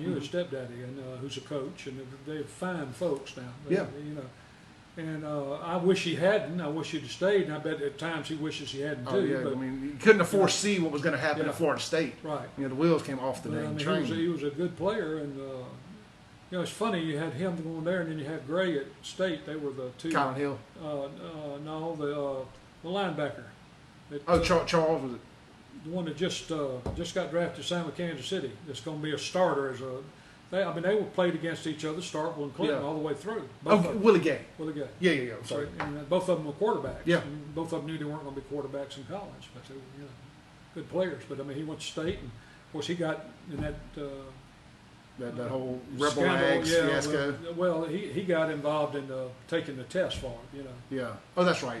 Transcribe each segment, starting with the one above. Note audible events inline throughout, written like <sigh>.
You're a stepdaddy, and uh, who's a coach, and they're fine folks now. They- Yeah. You know, and uh, I wish he hadn't. I wish he'd have stayed, and I bet at times he wishes he hadn't Oh too. yeah, but, I mean, you couldn't have foresee what was going to happen Yeah. at Florida State. right. You know, the wheels came off the But, I dang mean, he train. was, he was a good player, and uh, you know, it's funny you had him going there, and then you had Gray at State. They were the two. Colin Hill. Uh, uh, no, the uh, the linebacker. That, Oh, uh, Char- Charles was it? the one that just uh, just got drafted, Sam of Kansas City. That's going to be a starter as a. They, I mean, they were played against each other, Starkville and Clinton, Yeah. all the way through. Oh, Both of them. Willie Gay. Well, again, Yeah, yeah, yeah. I'm sorry. and uh, both of them were quarterbacks. Yeah. And both of them knew they weren't going to be quarterbacks in college, but they were you know, good players. But I mean, he went to state, and of course, he got in that uh, That, that whole uh, Rebel scandal. Ags yeah, fiasco. Well, well, he he got involved in uh, taking the test for it. You know, Yeah. Oh, that's right.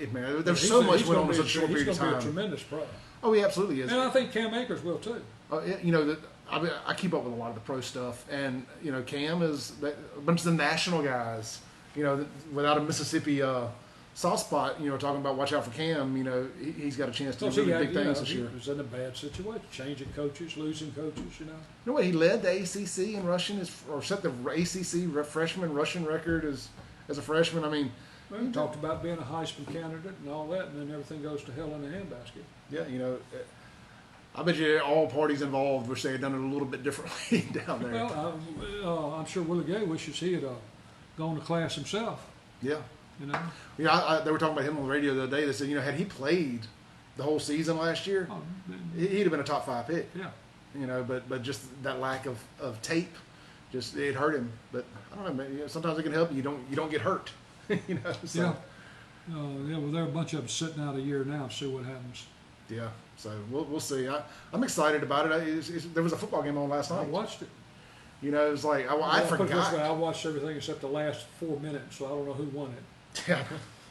It, man, there's He's so a- much he's went gonna on in be a- such a short he's period of gonna be time. a tremendous pro, oh, he absolutely is. and I think Cam Akers will too. Uh, you know, the, I, mean, I keep up with a lot of the pro stuff, and you know, Cam is that- a bunch of the national guys. You know, without a Mississippi uh, soft spot, you know, talking about watch out for Cam. You know, he, he's got a chance to Because do he, really had- big you know, things this Oh, he year. was in a bad situation, changing coaches, losing coaches. You know, You know what? He led the ACC in rushing, as, or set the ACC re- freshman rushing record as as a freshman. I mean, we talked about being a Heisman candidate and all that, and then everything goes to hell in a handbasket. yeah, you know, eh, I bet you all parties involved wish they had done it a little bit differently <laughs> down there. Well, I, uh, I'm sure Willie Gay wishes he had uh, gone to class himself. yeah, You know, you know, I, I, they were talking about him on the radio the other day. They said, you know, had he played the whole season last year, Oh, he- he'd have been a top five pick. yeah. You know, but but just that lack of, of tape, just it hurt him. But I don't know. Man, you know, sometimes it can help you. You don't you don't get hurt. <laughs> you know. So. Yeah. Uh, yeah, well, there are a bunch of them sitting out a year now. See what happens. Yeah, so we'll, we'll see. I, I'm excited about it. I, it's, it's, there was a football game on last I night. watched it. You know, it was like I, Oh, I Well, put it this way, I <laughs> forgot. watched everything except the last four minutes, so I don't know who won it.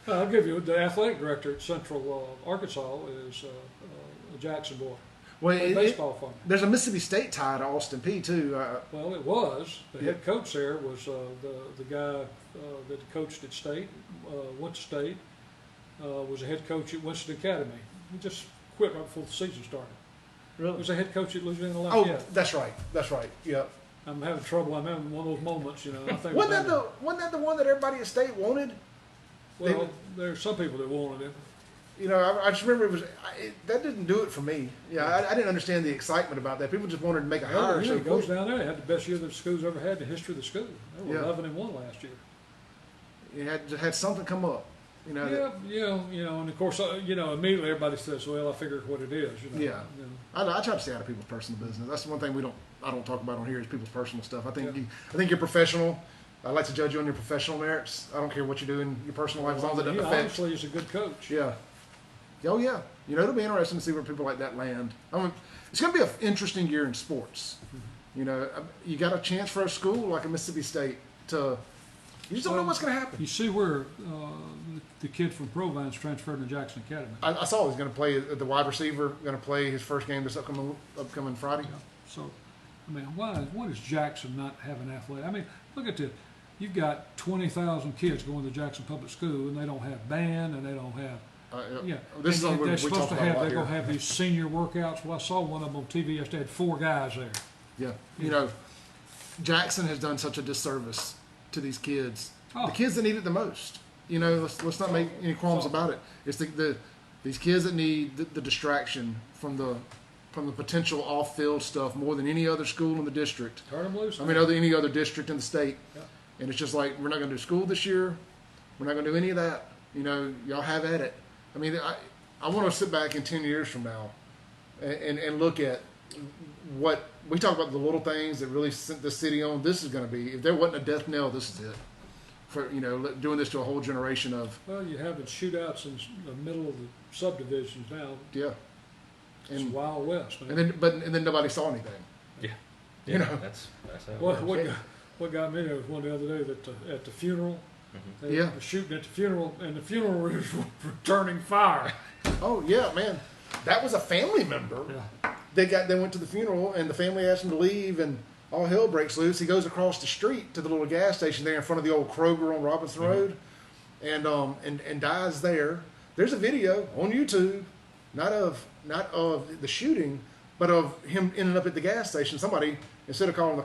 Uh, I'll give you the athletic director at Central uh, Arkansas is uh, uh, a Jackson boy. well, Played it, it, baseball for me. there's a Mississippi State tie to Austin P too. Uh, Well, it was. The Yeah. head coach there was uh, the, the guy uh, that coached at State, uh, went to State, uh, was a head coach at Winston Academy. He just quit right before the season started. Was a head coach at Louisiana Oh, Lafayette. that's right. That's right. Yeah. I'm having trouble. I'm having one of those moments, you know. I think about Wasn't Oh. that the wasn't that the one that everybody at State wanted? it. well, there are some people that wanted it. You know, I, I just remember it was I, it, that didn't do it for me. Yeah, I, I didn't understand the excitement about that. People just wanted to make a Hell, you hire. know, So Oh, it goes down there. They had the best year that the school's ever had in the history of the school. They were Yeah. 11 and one last year. it had had something come up. You know. Yeah, that- yeah, you know, and of course, uh, you know, immediately everybody says, "Well, I figured what it is." You know, Yeah. You know. I, I try to stay out of people's personal business. That's the one thing we don't I don't talk about on here is people's personal stuff. I think Yeah. you, I think you're professional. I like to judge you on your professional merits. I don't care what you do in your personal life as long as it he doesn't affect. obviously is a good coach. Yeah. Oh yeah. You know it'll be interesting to see where people like that land. I mean, it's going to be an interesting year in sports. Mm-hmm. You know, I- you got a chance for a school like a Mississippi State to. You just don't know Well, what's going to happen. You see where uh, the kid from Provine's transferred to Jackson Academy. I, I saw he's going to play uh, the wide receiver. Going to play his first game this upcoming upcoming Friday. Yeah. So, I mean, why why does Jackson not have an athlete? I mean, look at this. You've got twenty thousand kids going to Jackson Public School, and they don't have band, and they don't have Uh, yeah. This is And something we, they're we supposed talk to about a have. lot They're here. gonna have these senior workouts. Well, I saw one of them on TV yesterday. Had four guys there. Yeah. You know, Jackson has done such a disservice to these kids. Oh. The kids that need it the most. You know, let's, let's not make any qualms So- about it. It's the, the these kids that need the, the distraction from the from the potential off field stuff more than any other school in the district. Turn them loose. I mean, uh, man. other any other district in the state. Yeah. And it's just like we're not going to do school this year. We're not going to do any of that. You know, y'all have at it. I mean, I I want to sit back in ten years from now, and, and and look at what we talk about the little things that really sent the city on. This is going to be if there wasn't a death knell, this is it. For you know, li- doing this to a whole generation of well, you're having shootouts in the middle of the subdivisions now. yeah, It's and Wild West, man. and then but and then nobody saw anything. Yeah, You know? that's that's how it What, works. what, got- what got me there was one the other day that the, at the funeral, they Yeah. were shooting at the funeral, and the funeral <laughs> was returning fire. Oh yeah, man, that was a family member. they got they went to the funeral and the family asked him to leave and all hell breaks loose. He goes across the street to the little gas station there in front of the old Kroger on Robinson Road, and um and and dies there. There's a video on YouTube, not of not of the shooting, but of him ending up at the gas station. Somebody instead of calling